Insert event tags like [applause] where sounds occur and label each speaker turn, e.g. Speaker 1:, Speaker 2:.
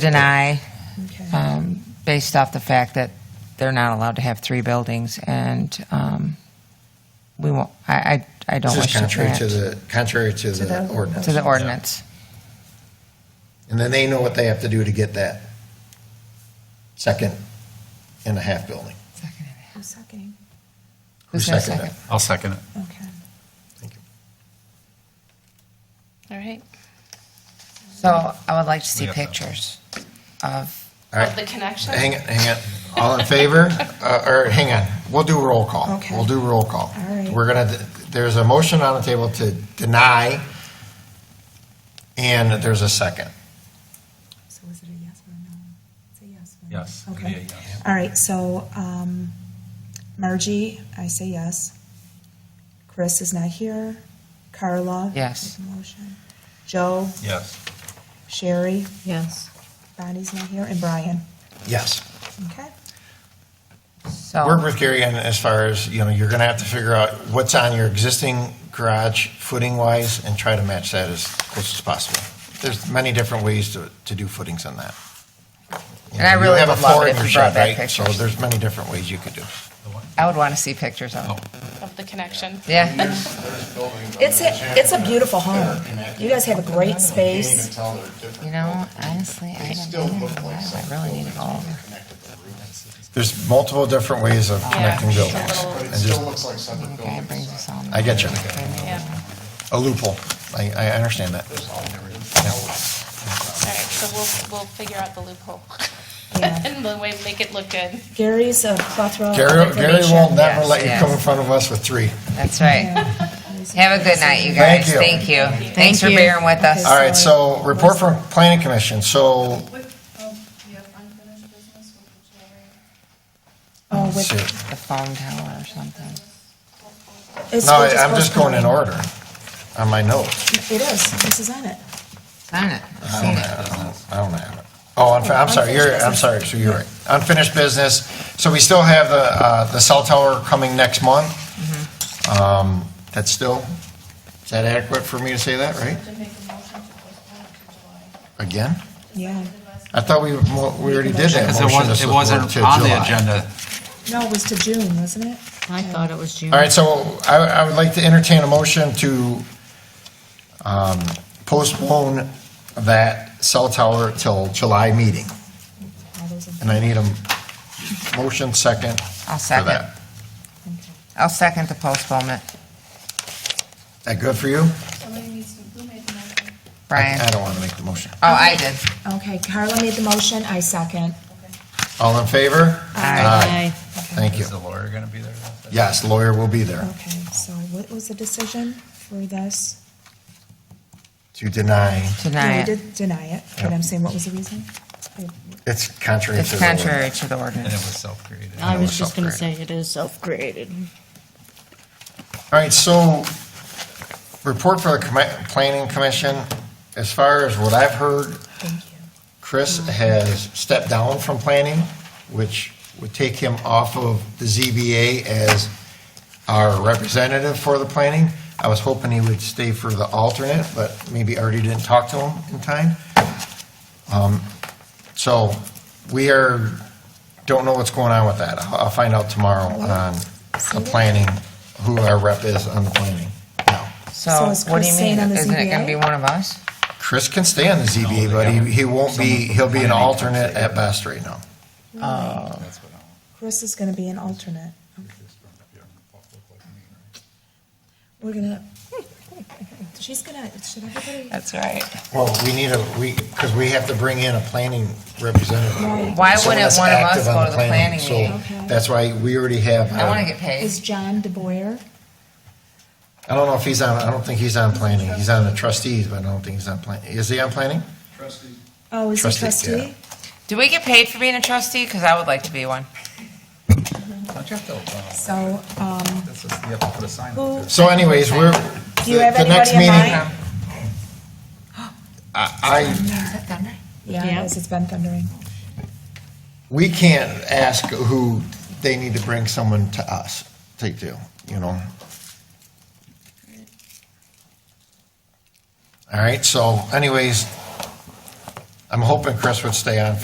Speaker 1: deny
Speaker 2: Okay.
Speaker 1: um, based off the fact that they're not allowed to have three buildings, and um, we won't, I, I I don't
Speaker 3: This
Speaker 1: wish
Speaker 3: is
Speaker 1: to
Speaker 3: contrary
Speaker 1: grant
Speaker 3: to the, contrary to
Speaker 2: To the-
Speaker 3: the ordinance.
Speaker 1: to the ordinance.
Speaker 3: And then they know what they have to do to get that second and a half building.
Speaker 2: Who's seconding?
Speaker 1: Who's gonna
Speaker 3: seconded
Speaker 1: second?
Speaker 4: I'll second it.
Speaker 2: Okay.
Speaker 3: Thank you.
Speaker 5: All right.
Speaker 1: So I would like to see
Speaker 4: We got that.
Speaker 1: pictures of,
Speaker 3: All right.
Speaker 5: Of the connection?
Speaker 3: Hang on, hang on. All
Speaker 2: [laughs]
Speaker 3: in favor? Uh, Or, hang on, we'll do roll call.
Speaker 2: Okay.
Speaker 3: We'll do roll call.
Speaker 2: All right.
Speaker 3: We're gonna, there's a motion on the table to deny, and there's a second.
Speaker 2: So was it a yes or a no? It's a yes. right?
Speaker 4: Yes, it'd be a
Speaker 2: Okay.
Speaker 4: yes.
Speaker 2: All right, so um, Margie, I say yes. Chris is not here. Carla?
Speaker 1: Yes.
Speaker 2: make a Motion. Joe,
Speaker 4: Yes.
Speaker 2: Sherry,
Speaker 6: Yes.
Speaker 2: Bonnie's not here, and Brian.
Speaker 3: Yes.
Speaker 2: Okay?
Speaker 3: Work
Speaker 1: so,
Speaker 3: with Gary on as far as, you know, you're gonna have to figure out what's on your existing garage footing wise and try to match that as close as possible. There's many different ways to, to do footings on that. You
Speaker 1: And I
Speaker 3: know, you
Speaker 1: really
Speaker 3: have a
Speaker 1: would love
Speaker 3: floor
Speaker 1: it
Speaker 3: in
Speaker 1: if
Speaker 3: your
Speaker 1: you brought
Speaker 3: shed,
Speaker 1: back
Speaker 3: right? So
Speaker 1: pictures.
Speaker 3: there's many different ways you could do.
Speaker 1: I would want to see pictures of
Speaker 3: Oh.
Speaker 1: it.
Speaker 5: Of the connection.
Speaker 1: Yeah,
Speaker 2: It's a, it's a beautiful home. You guys have a great space.
Speaker 1: you know, honestly, I haven't been in a while. I really need to go over.
Speaker 3: There's multiple different ways of connecting
Speaker 5: Yeah.
Speaker 3: buildings.
Speaker 5: Little-
Speaker 3: And just
Speaker 1: The guy brings us all.
Speaker 3: I get you.
Speaker 5: Yeah.
Speaker 3: a loophole. I, I understand that.
Speaker 5: All right, so we'll, we'll figure out the loophole.
Speaker 2: Yeah.
Speaker 5: [laughs] And the way, make it look good.
Speaker 2: Gary's a plethora of
Speaker 3: Gary, Gary
Speaker 2: information.
Speaker 3: will never let you
Speaker 1: Yes,
Speaker 3: come in
Speaker 1: yes.
Speaker 3: front of us with three.
Speaker 1: That's right. Have a good night, you
Speaker 3: Thank
Speaker 1: guys.
Speaker 3: you.
Speaker 1: Thank you. Thanks for
Speaker 6: you.
Speaker 1: bearing with us.
Speaker 3: All right, so report from planning commission. So,
Speaker 7: What, oh, you have unfinished business with the chair?
Speaker 2: Oh, with-
Speaker 3: shoot.
Speaker 1: The phone tower or something.
Speaker 2: it's-
Speaker 3: no,
Speaker 2: we're
Speaker 3: I- I'm just going in
Speaker 2: postponing.
Speaker 3: order on my notes.
Speaker 2: It is, this is on it.
Speaker 1: Sign it.
Speaker 3: I don't have I don't have it. Oh, I'm, I'm sorry, you're, I'm sorry, so you're right. Unfinished business. So we still have the, uh, the cell tower coming next month. Um, That's still, is that adequate for me to say that, right?
Speaker 7: To make a motion to postpone it to July.
Speaker 3: Again?
Speaker 2: Yeah.
Speaker 3: I thought we, mo- we already did that
Speaker 4: Because
Speaker 3: motion.
Speaker 4: it
Speaker 3: This
Speaker 4: wasn't, it
Speaker 3: was
Speaker 4: wasn't
Speaker 3: moved to
Speaker 4: on the
Speaker 3: July.
Speaker 4: agenda.
Speaker 2: No, it was to June, wasn't it?
Speaker 6: I thought it was June.
Speaker 3: All right, so I, I would like to entertain a motion to um, postpone that cell tower till July meeting.
Speaker 2: All those in-
Speaker 3: And I need a motion second
Speaker 1: I'll
Speaker 3: for
Speaker 1: second.
Speaker 3: that.
Speaker 2: okay.
Speaker 1: I'll second the postponement.
Speaker 3: Is that good for you?
Speaker 7: Somebody needs to, who made the motion?
Speaker 1: Brian.
Speaker 3: I don't want to make the motion.
Speaker 1: Oh, I did.
Speaker 2: Okay, Carla made the motion, I second.
Speaker 3: All in favor?
Speaker 6: Aye.
Speaker 3: Thank you.
Speaker 4: Is the lawyer going to be there?
Speaker 3: Yes, lawyer will be there
Speaker 2: Okay, so what was the decision for this?
Speaker 3: to deny.
Speaker 2: No, we
Speaker 1: Tonight,
Speaker 2: did deny it, but I'm saying, what was the reason?
Speaker 3: It's contrary to the.
Speaker 1: it's contrary to the
Speaker 4: And it was
Speaker 1: ordinance.
Speaker 4: self-created.
Speaker 6: I
Speaker 3: It was
Speaker 6: was just going to say it is self-created.
Speaker 3: All right, so report for the commi- planning commission. As far as what I've heard,
Speaker 2: Thank you.
Speaker 3: Chris has stepped down from planning, which would take him off of the ZBA as our representative for the planning. I was hoping he would stay for the alternate, but maybe Artie didn't talk to him in time. Um, So we are, don't know what's going on with that. I'll I'll find out tomorrow on the planning, who our rep is on the planning. Now,
Speaker 2: So
Speaker 1: So what
Speaker 2: is
Speaker 1: do you
Speaker 2: Chris
Speaker 1: mean?
Speaker 2: staying on the
Speaker 1: Isn't it going to
Speaker 2: ZBA?
Speaker 1: be one of us?
Speaker 3: Chris can stay on the ZBA, but he he won't be, he'll be an alternate at best right now.
Speaker 1: Oh,
Speaker 4: That's what I-
Speaker 2: Chris is gonna be an alternate. We're gonna, [laughs] she's gonna, should everybody?
Speaker 1: That's right.
Speaker 3: Well, we need a, we, because we have to bring in a planning representative.
Speaker 2: Right.
Speaker 1: Why
Speaker 3: Someone
Speaker 1: wouldn't
Speaker 3: that's
Speaker 1: one of us
Speaker 3: active on
Speaker 1: go to the planning
Speaker 3: so
Speaker 1: meeting?
Speaker 2: Okay.
Speaker 3: That's why we already have. uh,
Speaker 1: I want to get paid.
Speaker 2: Is John DeBoyer?
Speaker 3: I don't know if he's on, I don't think he's on planning. He's on the trustees, but I don't think he's on planning. Is he on planning?
Speaker 2: Oh, is he
Speaker 3: Trustee, yeah.
Speaker 2: trustee?
Speaker 1: Do we get paid for being a trustee? Because I would like to be one.
Speaker 4: Don't you have to, uh,
Speaker 2: So, um,
Speaker 4: that's just, you have to put a sign up
Speaker 2: who,
Speaker 4: there.
Speaker 3: So anyways, we're.
Speaker 2: do you have
Speaker 3: the next
Speaker 2: anybody in
Speaker 3: meeting-
Speaker 2: mind?
Speaker 3: I,
Speaker 2: Yeah, it is. it's been thundering.
Speaker 3: we can't ask who, they need to bring someone to us to do, you know? All right, so anyways, I'm hoping Chris would stay on for